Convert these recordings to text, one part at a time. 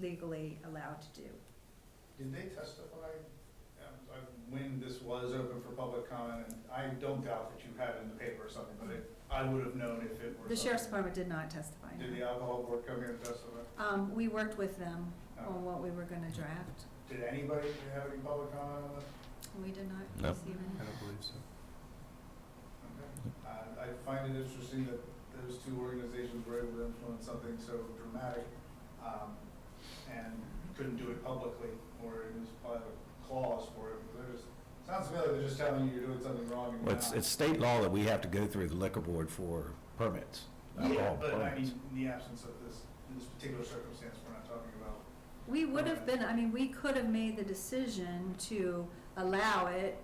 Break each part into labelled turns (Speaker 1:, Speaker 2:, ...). Speaker 1: legally allowed to do.
Speaker 2: Did they testify, um, uh, when this was open for public comment? And I don't doubt that you had it in the paper or something, but it, I would have known if it were.
Speaker 1: The sheriff's
Speaker 2: something.
Speaker 1: department did not testify. no.
Speaker 2: Did the alcohol board come here and testify?
Speaker 1: Um, we worked with them
Speaker 2: Oh.
Speaker 1: on what we were gonna draft.
Speaker 2: Did anybody have any public comment on this?
Speaker 1: We did not
Speaker 3: No.
Speaker 1: receive
Speaker 4: I
Speaker 1: any.
Speaker 4: don't believe so.
Speaker 2: Okay. Uh, I find it interesting that those two organizations were able to influence something so dramatic um, and couldn't do it publicly or it was part of a clause for it. They're just, sounds to me like they're just telling you you're doing something wrong and
Speaker 3: Well,
Speaker 2: you're
Speaker 3: it's, it's
Speaker 2: not.
Speaker 3: state law that we have to go through the liquor board for permits.
Speaker 2: Yeah,
Speaker 3: alcohol
Speaker 2: but I
Speaker 3: permits.
Speaker 2: mean, in the absence of this, in this particular circumstance, we're not talking about.
Speaker 1: We would have been, I mean, we could have made the decision to allow it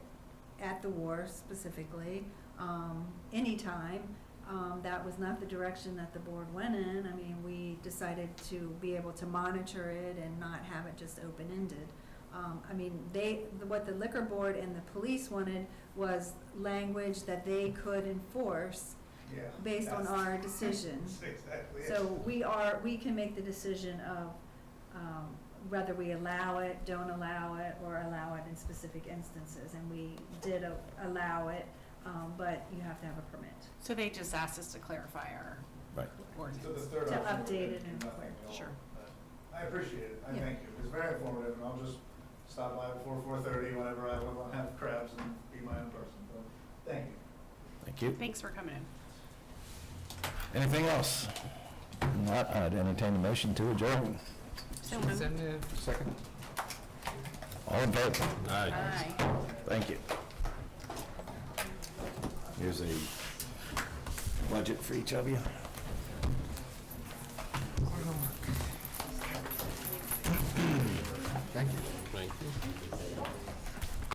Speaker 1: at the war specifically, um, anytime. Um, that was not the direction that the board went in. I mean, we decided to be able to monitor it and not have it just open-ended. Um, I mean, they, what the liquor board and the police wanted was language that they could enforce
Speaker 2: Yeah.
Speaker 1: based on
Speaker 2: that's-
Speaker 1: our decision.
Speaker 2: That's Exactly. it.
Speaker 1: So we are, we can make the decision of um, whether we allow it, don't allow it, or allow it in specific instances. And we did a- allow it, um, but you have to have a permit.
Speaker 4: So they just asked us to clarify our
Speaker 3: Right.
Speaker 2: So the
Speaker 4: ordinance.
Speaker 2: third
Speaker 1: To
Speaker 2: option would
Speaker 1: update it
Speaker 2: be
Speaker 1: and-
Speaker 2: nothing at all.
Speaker 4: Sure.
Speaker 2: But I appreciate it, I
Speaker 1: Yeah.
Speaker 2: thank you, it's very informative, and I'll just stop by before four-thirty whenever I want to have crabs and be my own person, but thank you.
Speaker 3: Thank you.
Speaker 4: Thanks for coming in.
Speaker 3: Anything else? Not, I'd entertain a motion to adjourn.
Speaker 4: So moved.
Speaker 3: Second. All in favor?
Speaker 4: Aye.
Speaker 3: Thank you. Here's a budget for each of you.
Speaker 5: Thank you.